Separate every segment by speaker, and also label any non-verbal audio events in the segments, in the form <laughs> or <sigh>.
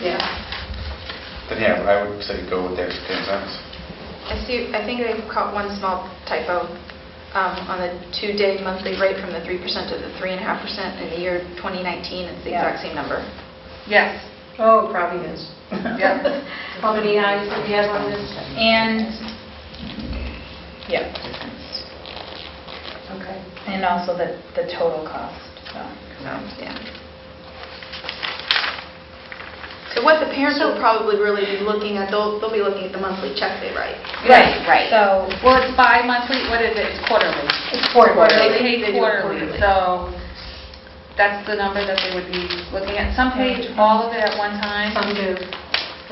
Speaker 1: Yeah.
Speaker 2: Then yeah, but I would say go with the extra 10 cents.
Speaker 1: I see, I think they caught one small typo um, on the two-day monthly rate from the 3% to the 3.5%. In the year 2019, it's the
Speaker 3: Yeah.
Speaker 1: exact same number.
Speaker 3: Yes.
Speaker 4: Oh, it probably is.
Speaker 3: Yep.
Speaker 4: How many eyes do we have on this?
Speaker 3: And, yeah,
Speaker 4: Okay.
Speaker 3: and also the, the total cost, so.
Speaker 1: Um, Yeah. So what the parents will probably really be looking at, they'll, they'll be looking at the monthly check they write.
Speaker 3: So,
Speaker 5: Well, it's bi-monthly, what is it, it's quarterly?
Speaker 4: It's quarterly.
Speaker 5: They pay
Speaker 1: They do it
Speaker 5: quarterly,
Speaker 1: quarterly.
Speaker 5: so that's the number that they would be looking at. Some pay all of it at one time,
Speaker 4: Some do.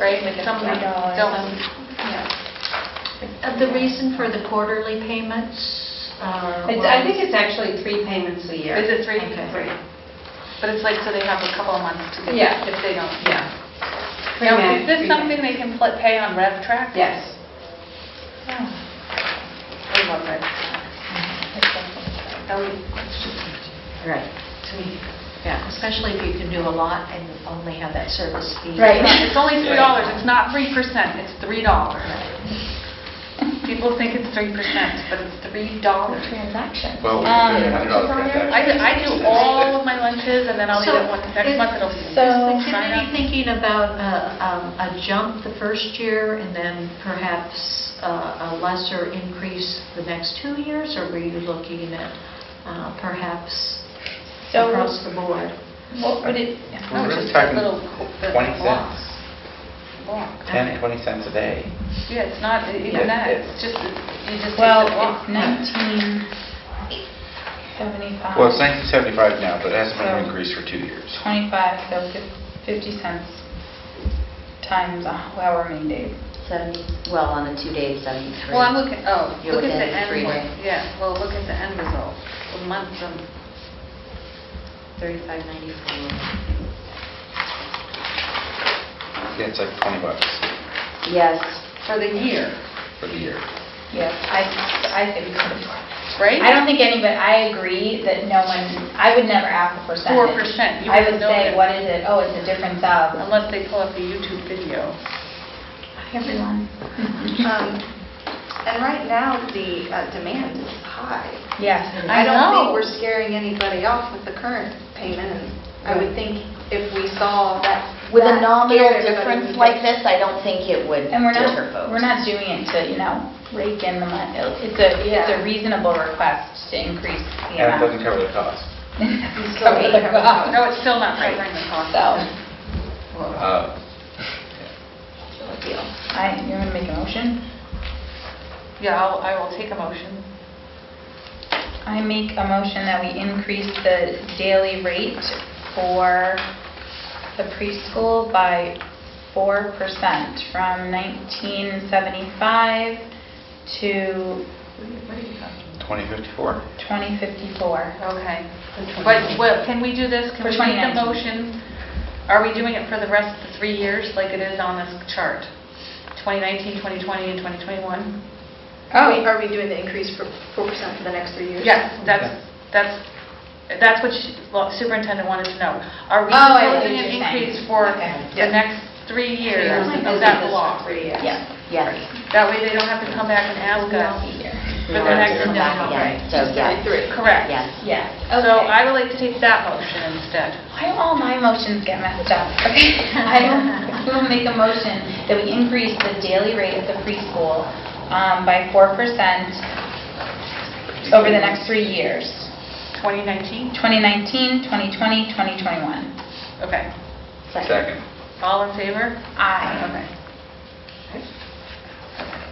Speaker 5: right?
Speaker 3: Like a
Speaker 5: Some
Speaker 3: few dollars,
Speaker 5: don't.
Speaker 6: Uh, The reason for the quarterly payments are...
Speaker 4: It's- I think it's actually three payments a year.
Speaker 5: Is it three?
Speaker 4: Okay.
Speaker 5: Three. But it's like, so they have a couple of months to get
Speaker 4: Yeah.
Speaker 5: it if they don't.
Speaker 4: Yeah.
Speaker 5: Now, is
Speaker 4: Pre-med,
Speaker 5: this
Speaker 4: pre-med.
Speaker 5: something they can pl- pay on RevTrak?
Speaker 4: Yes.
Speaker 5: I love RevTrak.
Speaker 4: Mm-hmm.
Speaker 5: That would be
Speaker 4: Right.
Speaker 6: Yeah, especially if you can do a lot and only have that service fee.
Speaker 3: Right.
Speaker 5: <laughs> It's only $3, it's not 3%, it's $3. People think it's 3%, but it's $3.
Speaker 3: transactions.
Speaker 2: Well, we
Speaker 3: Um,
Speaker 2: could do a hundred dollar transaction.
Speaker 5: I do- I do all of my lunches, and then I'll eat
Speaker 6: So,
Speaker 5: it once, next
Speaker 6: is-
Speaker 5: month it'll be.
Speaker 3: so-
Speaker 6: Is the
Speaker 5: Sign
Speaker 6: committee
Speaker 5: up.
Speaker 6: thinking about uh, um, a jump the first year and then perhaps uh, a lesser increase the next two years? Or were you looking at uh, perhaps
Speaker 3: So-
Speaker 6: across the board?
Speaker 3: What would it,
Speaker 5: No,
Speaker 2: We're really
Speaker 5: just that
Speaker 2: talking
Speaker 5: little co- the
Speaker 2: 20
Speaker 5: block.
Speaker 2: cents.
Speaker 5: Block.
Speaker 2: 10, 20 cents a day.
Speaker 5: Yeah, it's not
Speaker 2: Yeah.
Speaker 5: even that, it's just, you just take
Speaker 3: well,
Speaker 5: the block.
Speaker 3: it's 1975.
Speaker 2: Well, it's 1975 now, but it hasn't been
Speaker 3: So-
Speaker 2: increased for two years.
Speaker 3: 25, so fif- 50 cents times a- however many days.
Speaker 7: 70, well, on the two days, 73.
Speaker 5: Well, I'm looking, oh,
Speaker 7: You're
Speaker 5: look at
Speaker 7: within
Speaker 5: the end,
Speaker 7: three.
Speaker 5: one. yeah, well, look at the end result, the month, um,
Speaker 7: 3594.
Speaker 2: Yeah, it's like 20 bucks
Speaker 7: Yes.
Speaker 5: for the year,
Speaker 2: for the year.
Speaker 3: Yes, I, I think we could afford it.
Speaker 5: right?
Speaker 3: I don't think anybody, I agree that no one, I would never ask a
Speaker 5: 4%,
Speaker 3: percentage.
Speaker 5: you
Speaker 3: I would
Speaker 5: wouldn't know
Speaker 3: say,
Speaker 5: that.
Speaker 3: what is it? Oh, it's a difference of.
Speaker 5: Unless they pull up a YouTube video.
Speaker 3: Everyone.
Speaker 1: Um, And right now, the uh, demand is high.
Speaker 3: Yes.
Speaker 1: I don't think
Speaker 5: know.
Speaker 1: we're scaring anybody off with the current payment. And I would think if we saw that.
Speaker 7: With
Speaker 1: that
Speaker 7: a nominal
Speaker 1: scared everybody,
Speaker 7: difference
Speaker 1: we'd
Speaker 7: like
Speaker 1: get-
Speaker 7: this, I don't think it would
Speaker 3: And we're not,
Speaker 7: deter folks.
Speaker 3: we're not doing it to, you know, rake in the money. It's a, it's
Speaker 1: Yeah.
Speaker 3: a reasonable request to increase the
Speaker 2: And it
Speaker 3: amount.
Speaker 2: doesn't cover the cost.
Speaker 3: Cover the cost.
Speaker 5: No, it's still not covering the cost.
Speaker 3: <laughs> So,
Speaker 2: Uh,
Speaker 5: Whoa.
Speaker 3: I, you want to make a motion?
Speaker 5: Yeah, I'll, I will take a motion.
Speaker 3: I make a motion that we increase the daily rate for the preschool by 4% from 1975 to
Speaker 5: What are you talking
Speaker 2: 2054.
Speaker 3: 2054.
Speaker 5: Okay. But, well, can we do this? Can
Speaker 3: For
Speaker 5: we make a
Speaker 3: 2019.
Speaker 5: motion? Are we doing it for the rest of the three years like it is on this chart? 2019, 2020, and 2021?
Speaker 3: Oh.
Speaker 1: Are we- are we doing the increase for 4% for the next three years?
Speaker 5: Yes, that's, that's, that's what she- well, superintendent wanted to know. Are we
Speaker 3: Oh, I see what
Speaker 5: proposing an
Speaker 3: you're saying.
Speaker 5: increase for
Speaker 3: Okay.
Speaker 5: the next three years
Speaker 6: Like
Speaker 5: of
Speaker 6: this
Speaker 5: that
Speaker 6: is
Speaker 5: block?
Speaker 6: three, yeah.
Speaker 3: Yes.
Speaker 7: Yes.
Speaker 5: That way they don't have to come back and ask us.
Speaker 7: We
Speaker 5: the
Speaker 7: won't have to
Speaker 5: next one.
Speaker 7: come back again. So,
Speaker 1: Just
Speaker 7: yes.
Speaker 1: 33.
Speaker 5: Correct.
Speaker 7: Yes.
Speaker 3: Yes.
Speaker 5: So I would like to take that motion instead.
Speaker 3: Why do all my motions get messed up? <laughs> Okay, I will- I will make a motion that we increase the daily rate of the preschool um, by 4% over the next three years,
Speaker 5: 2019?
Speaker 3: 2019, 2020, 2021.
Speaker 5: Okay.
Speaker 2: Second.
Speaker 5: All in favor?
Speaker 3: Aye.
Speaker 5: Okay.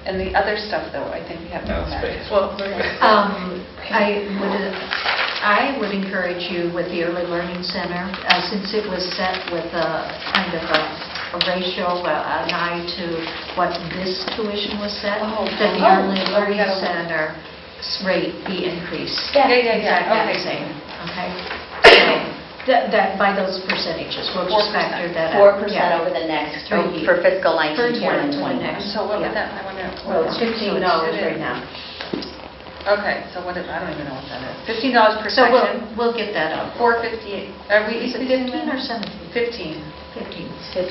Speaker 5: And the other stuff, though, I think we have to
Speaker 2: No
Speaker 5: go back.
Speaker 2: space.
Speaker 6: <laughs>
Speaker 5: Well, we're gonna-
Speaker 6: Um, I would, I would encourage you with the Early Learning Center, uh, since it was set with a kind of a a ratio, uh, an eye to what this tuition was set,
Speaker 5: Oh,
Speaker 6: that the
Speaker 5: oh,
Speaker 6: Early
Speaker 5: oh, we
Speaker 6: Learning
Speaker 5: gotta-
Speaker 6: Center's rate be increased.
Speaker 5: Yeah, yeah, yeah,
Speaker 6: Exactly
Speaker 5: okay.
Speaker 6: the same,
Speaker 5: <coughs>
Speaker 6: okay? So, That, that- by those percentages, we'll just
Speaker 5: 4%.
Speaker 6: factor that out.
Speaker 7: 4%
Speaker 6: Yeah.
Speaker 7: over the next,
Speaker 6: Three
Speaker 7: oh, for fiscal
Speaker 6: For
Speaker 7: 19, 20, and
Speaker 6: 20,
Speaker 7: 21.
Speaker 5: And so what
Speaker 6: Yeah.
Speaker 5: would that, I wonder.
Speaker 6: Well, it's $15 right now.
Speaker 5: Okay, so what is, I don't even know what that is. Fifteen dollars per
Speaker 6: So we'll,
Speaker 5: section,
Speaker 6: we'll get that up.
Speaker 5: four fifty-eight. Are we
Speaker 6: Is it
Speaker 5: increasing
Speaker 6: 15
Speaker 5: that?
Speaker 6: or 17?
Speaker 5: Fifteen.
Speaker 6: 15.
Speaker 7: Fif-